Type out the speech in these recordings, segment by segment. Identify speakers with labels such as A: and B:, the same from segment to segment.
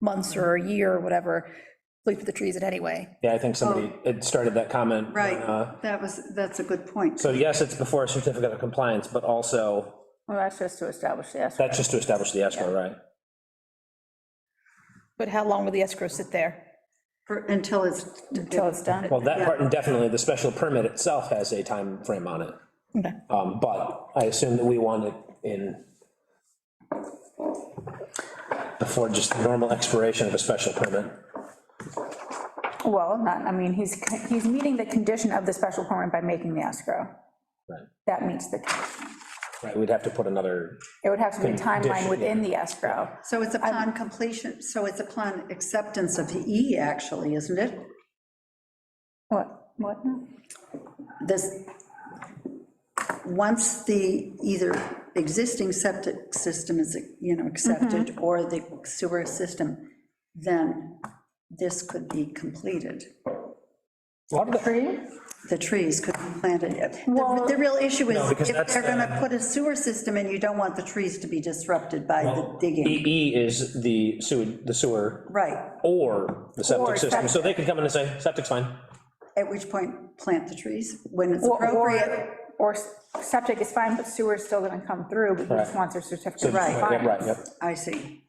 A: months or a year or whatever, we put the trees in anyway.
B: Yeah, I think somebody had started that comment.
C: Right,
B: uh,
C: that was, that's a good point.
B: So yes, it's before a certificate of compliance, but also,
D: Well, that's just to establish the escrow.
B: that's just to establish the escrow, right?
A: But how long will the escrow sit there?
C: For- Until it's,
D: Until it's done.
B: Well, that part indefinitely, the special permit itself has a time frame on it.
A: Okay.
B: Um, But I assume that we want it in before just the normal expiration of a special permit.
D: Well, not, I mean, he's, he's meeting the condition of the special permit by making the escrow.
B: Right.
D: That meets the,
B: Right, we'd have to put another,
D: it would have to be timeline
B: Condition,
D: within the escrow.
C: so it's upon completion, so it's upon acceptance of E, actually, isn't it?
D: What, what? now?
C: This, once the either existing septic system is, you know,
D: Mm-hmm.
C: accepted, or the sewer system, then this could be completed.
B: a lot of the-
D: Tree?
C: The trees could be planted. The
D: Well-
C: the real issue
B: No,
C: is,
B: because
C: if
B: that's uh,
C: they're going to
B: the-
C: put a sewer system in, you don't want the trees to be disrupted by the digging.
B: EE E is the sewer, the sewer
C: Right,
B: or the septic system, so they could come in and say, septic's fine.
C: at which point, plant the trees when it's
D: Or-
C: appropriate.
D: Or, or septic is fine, but sewer's still gonna come through, but he just
B: Right.
D: wants a certificate. of
C: Right.
B: Yeah, Right,
D: compliance.
B: yep.
C: I see.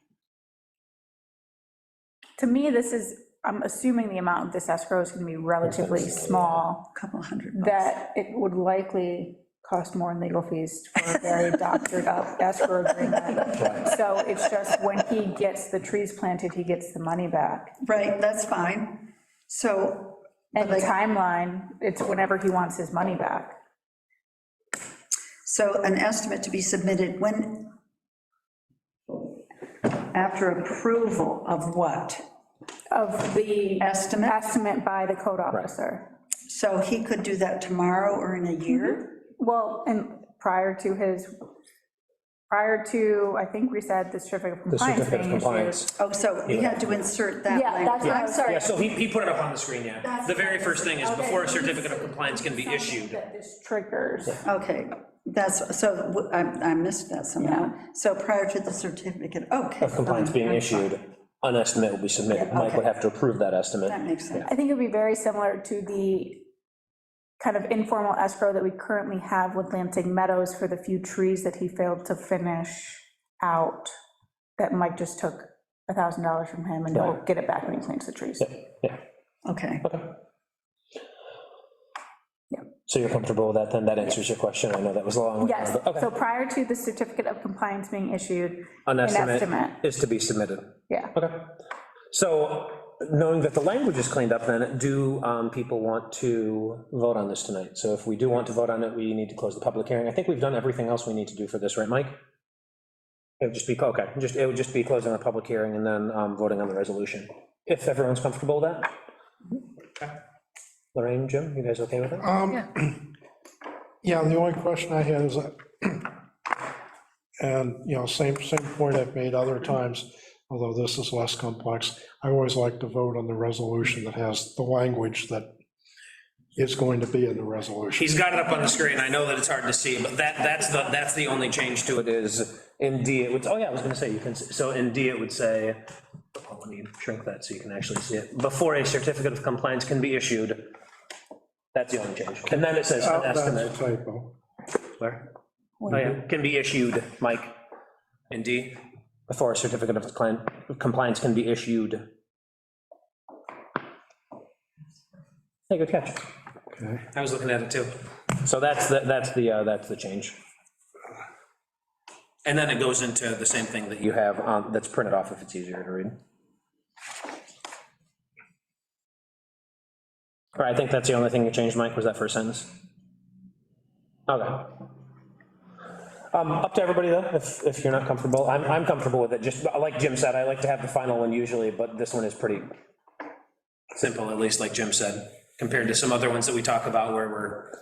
D: To me, this is, I'm assuming the amount of this escrow is gonna be relatively small,
C: Couple hundred bucks.
D: that it would likely cost more in legal fees for a very doctored up escrow agreement. So it's just when he gets the trees planted, he gets the money back.
C: Right, that's fine. So,
D: And the
C: Like-
D: timeline, it's whenever he wants his money back.
C: so an estimate to be submitted when? After approval of what?
D: Of the
C: Estimate?
D: estimate by the code officer.
C: So he could do that tomorrow or in a year?
D: Well, and prior to his, prior to, I think we said the certificate of
B: The
D: compliance
B: certificate of
D: being issued.
B: compliance.
C: Oh, so we had to insert that.
D: Mm-hmm. Yeah,
C: language.
D: that's what I
C: I'm
D: was-
C: sorry.
B: Yeah, so he, he put it up on the screen, yeah. The very first thing is before a certificate of compliance can be issued.
D: That this triggers.
C: Okay, that's, so w- I I missed that somehow. So prior to the certificate, okay.
B: Of compliance being issued, an estimate will be submitted. Mike would have to approve that estimate.
C: That makes sense.
D: I think it would be very similar to the kind of informal escrow that we currently have with Lansing Meadows for the few trees that he failed to finish out, that Mike just took a thousand dollars from him and he'll get it back when he plants the trees.
B: Yeah,
C: Okay,
B: okay.
D: Yeah.
B: So you're comfortable with that, then? That answers your question? I know that was a long one.
D: Yes,
B: but- Okay.
D: so prior to the certificate of compliance being issued,
B: An estimate
D: estimate.
B: is to be submitted.
D: yeah.
B: Okay. So knowing that the language is cleaned up, then, do um, people want to vote on this tonight? So if we do want to vote on it, we need to close the public hearing. I think we've done everything else we need to do for this, right, Mike? It would just be, okay, just, it would just be closing the public hearing and then um, voting on the resolution, if everyone's comfortable with that. Okay. Lorraine, Jim, you guys okay with that?
E: Um, Yeah, the only question I had is, that- and, you know, same, same point I've made other times, although this is less complex, I always like to vote on the resolution that has the language that is going to be in the resolution.
B: He's got it up on the screen, I know that it's hard to see, but that, that's the, that's the only change to it is, in D, it would, oh yeah, I was gonna say, you can, s- so in D, it would say, oh, let me shrink that so you can actually see it, before a certificate of compliance can be issued, that's the only change, and then it says
E: Oh,
B: an
E: That's a
B: estimate,
E: typo.
B: where? Oh yeah, can be issued, Mike, in D, before a certificate of client- of compliance can be issued. Hey, good catch.
E: Okay.
B: I was looking at it too. So that's, the that's the, uh, that's the change. And then it goes into the same thing that you have, um, that's printed off if it's easier to read. All right, I think that's the only thing that changed, Mike, was that first sentence. Okay. Um, Up to everybody, though, if, if you're not comfortable. I'm, I'm comfortable with it, just, like Jim said, I like to have the final one usually, but this one is pretty simple, at least like Jim said, compared to some other ones that we talk about where we're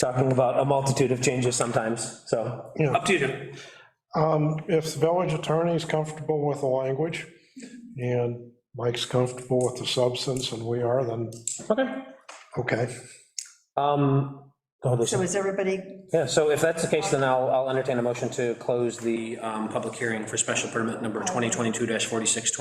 B: talking about a multitude of changes sometimes, so.
E: Yeah.
B: Up to you, Jim.
E: Um, If the village attorney is comfortable with the language, and Mike's comfortable with the substance, and we are, then,
B: Okay.
E: okay.
B: Um, oh, there's-
C: so is everybody,
B: Yeah, so if that's the case, then I'll, I'll entertain a motion to close the um, public hearing for special permit number 2022-4620.